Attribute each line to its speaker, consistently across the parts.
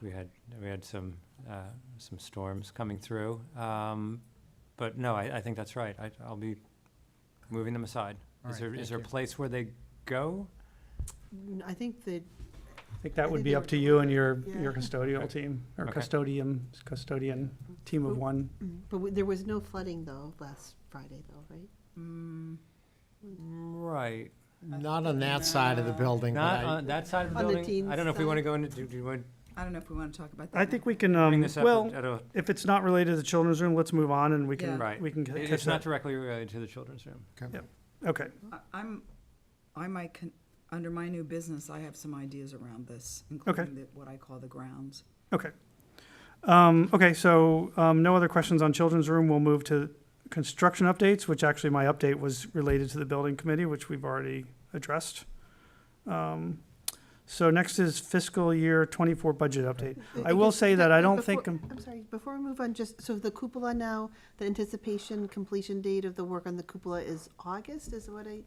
Speaker 1: We had, we had some, uh, some storms coming through. Um, But no, I, I think that's right. I, I'll be moving them aside.
Speaker 2: All
Speaker 1: Is
Speaker 2: right,
Speaker 1: there, is
Speaker 2: thank
Speaker 1: there a
Speaker 2: you.
Speaker 1: place where they go?
Speaker 3: Mm, I think that,
Speaker 4: I think
Speaker 3: I
Speaker 4: that
Speaker 3: think
Speaker 4: would
Speaker 3: they
Speaker 4: be up
Speaker 3: would-
Speaker 4: to you and your, your
Speaker 3: Yeah.
Speaker 4: custodial team, or
Speaker 1: Okay.
Speaker 4: custodian, custodian, team of
Speaker 3: Who-
Speaker 4: one.
Speaker 3: but w- there was no flooding though, last Friday though, right?
Speaker 1: Right,
Speaker 5: Not on that side of the building, but
Speaker 1: not
Speaker 5: I,
Speaker 1: on that side of the
Speaker 3: On the
Speaker 1: building? I don't know if we
Speaker 3: teens
Speaker 1: want to
Speaker 3: side.
Speaker 1: go into, do do you want
Speaker 6: I don't know if we want to talk about that.
Speaker 4: I
Speaker 6: now.
Speaker 4: think we can,
Speaker 1: to bring
Speaker 4: um,
Speaker 1: this up?
Speaker 4: well,
Speaker 1: at a-
Speaker 4: if it's not related to the children's room, let's move on and we
Speaker 6: Yeah.
Speaker 4: can,
Speaker 1: Right.
Speaker 4: we can
Speaker 1: It-
Speaker 4: ca- catch
Speaker 1: It's not
Speaker 4: that.
Speaker 1: directly related to the children's room.
Speaker 4: Okay,
Speaker 6: I- I'm, I might, con- under my new business, I have some ideas around this,
Speaker 4: Okay.
Speaker 6: including the- what I call the grounds.
Speaker 4: okay. Um, okay, so, um, no other questions on children's room. We'll move to construction updates, which actually my update was related to the building committee, which we've already addressed. Um, so next is fiscal year twenty-four budget update. I will
Speaker 3: just-
Speaker 4: say that I don't
Speaker 3: before-
Speaker 4: think, um,
Speaker 3: I'm sorry, before we move on, just, so the cupola now, the anticipation completion date of the work on the cupola is August, is what I,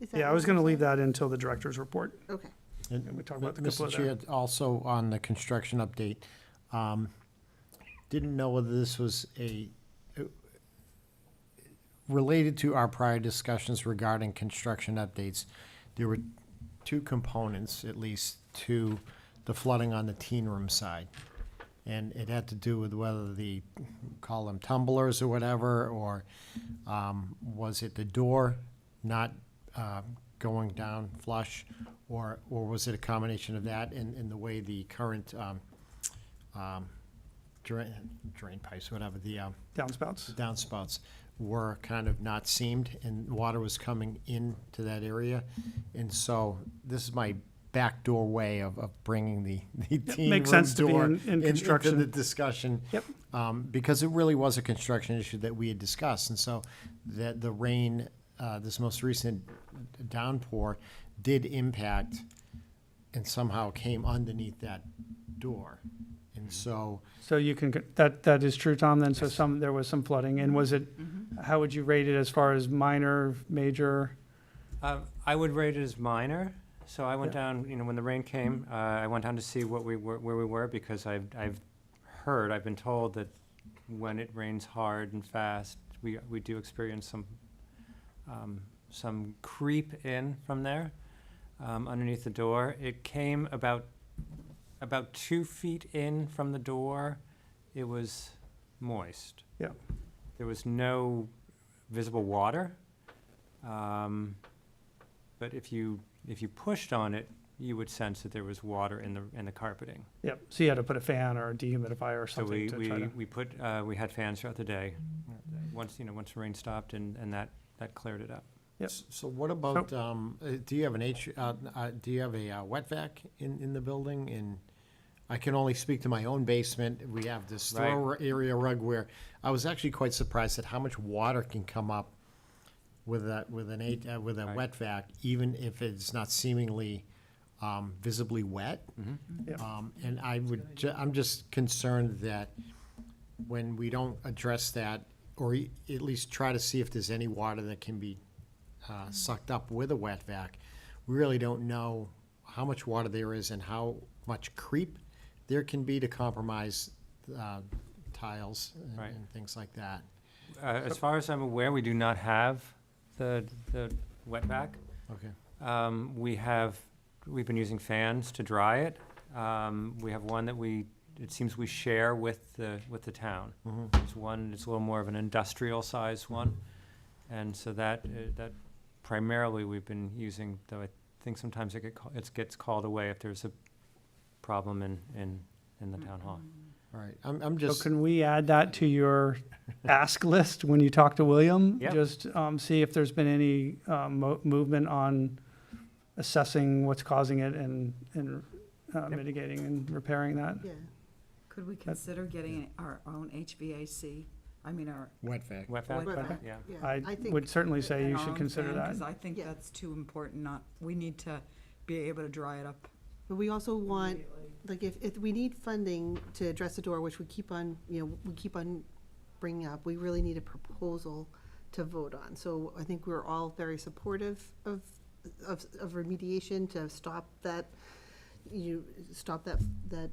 Speaker 3: is that?
Speaker 4: yeah, I
Speaker 3: what
Speaker 4: was gonna
Speaker 3: you're
Speaker 4: leave
Speaker 3: saying?
Speaker 4: that until the director's report.
Speaker 3: Okay.
Speaker 4: And we talk about the cupola
Speaker 5: Mr. Chair, also on the construction update, um, didn't know whether this was a, related to our prior discussions regarding construction updates, there were two components, at least, to the flooding on the teen room side. And it had to do with whether the, call them tumblers or whatever, or um, was it the door not uh, going down flush? Or, or was it a combination of that and, and the way the current um, um, drain, drain pipes, whatever, the um,
Speaker 4: downspouts.
Speaker 5: downspouts were kind of not seamed and water was coming into that area. And so this is my backdoor way of, of bringing the, the teen
Speaker 4: makes
Speaker 5: room
Speaker 4: sense to be
Speaker 5: door
Speaker 4: in- in
Speaker 5: in-
Speaker 4: construction.
Speaker 5: Into the discussion.
Speaker 4: Yep.
Speaker 5: Um, because it really was a construction issue that we had discussed. And so that the rain, uh, this most recent downpour did impact and somehow came underneath that door. And so,
Speaker 4: So you can, that, that is true, Tom, then, so some, there was some flooding, and was it, how would you rate it as far as minor, major?
Speaker 1: Um, I would rate it as minor, so I went down, you know, when the rain came, uh, I went down to see what we were, where we were, because I've, I've heard, I've been told that when it rains hard and fast, we, we do experience some, um, some creep in from there, um, underneath the door. It came about, about two feet in from the door, it was moist.
Speaker 4: Yeah.
Speaker 1: There was no visible water. Um, but if you, if you pushed on it, you would sense that there was water in the, in the carpeting.
Speaker 4: Yep, so you had to put a fan or a dehumidifier or
Speaker 1: So
Speaker 4: something
Speaker 1: we,
Speaker 4: to
Speaker 1: we,
Speaker 4: try to,
Speaker 1: we put, uh, we had fans throughout the day. Once, you know, once the rain stopped and, and that, that cleared it up.
Speaker 4: Yep.
Speaker 5: S- So what about, um, uh, do you have an H, uh, uh, do you have a uh, wet vac in, in the building? And I can only speak to my own basement. We have this
Speaker 1: Right.
Speaker 5: throw area rug where I was actually quite surprised at how much water can come up with a, with an eight, uh, with a
Speaker 1: Right.
Speaker 5: wet vac, even if it's not seemingly, um, visibly wet.
Speaker 4: Yep.
Speaker 5: Um, and I would, ju- I'm just concerned that when we don't address that, or e- at least try to see if there's any water that can be uh, sucked up with a wet vac, we really don't know how much water there is and how much creep there can be to compromise uh, tiles and-
Speaker 1: Right.
Speaker 5: and things like that.
Speaker 1: Uh, as far as I'm aware, we do not have the, the wet vac.
Speaker 5: Okay.
Speaker 1: Um, we have, we've been using fans to dry it. Um, we have one that we, it seems we share with the, with the town. It's one, it's a little more of an industrial size one. And so that, uh, that primarily we've been using, though I think sometimes it get, ca- it gets called away if there's a problem in, in, in the town hall.
Speaker 5: All right, I'm, I'm
Speaker 4: so
Speaker 5: just.
Speaker 4: can we add that to your ask list when you talk to William?
Speaker 1: Yep.
Speaker 4: Just, um, see if there's been any, um, mo- movement on assessing what's causing it and, and uh, mitigating and repairing that?
Speaker 3: Yeah.
Speaker 6: Could we consider getting our own HVAC? I mean, our.
Speaker 5: Wet vac.
Speaker 1: Wet vac,
Speaker 6: Wet
Speaker 4: vac.
Speaker 1: yeah.
Speaker 3: Yeah,
Speaker 4: I
Speaker 3: think-
Speaker 4: would certainly say
Speaker 6: and
Speaker 4: you
Speaker 6: our
Speaker 4: should
Speaker 6: own
Speaker 4: consider
Speaker 6: fan,
Speaker 4: that.
Speaker 6: 'cause I think
Speaker 3: Yeah.
Speaker 6: that's too important, not, we need to be able to dry it up.
Speaker 3: But we also want, like, if, if we need funding to address the door, which we keep on, you know, we keep on bringing up, we really need a proposal to vote on. So I think we're all very supportive of, of, of remediation to stop that, you, stop that, that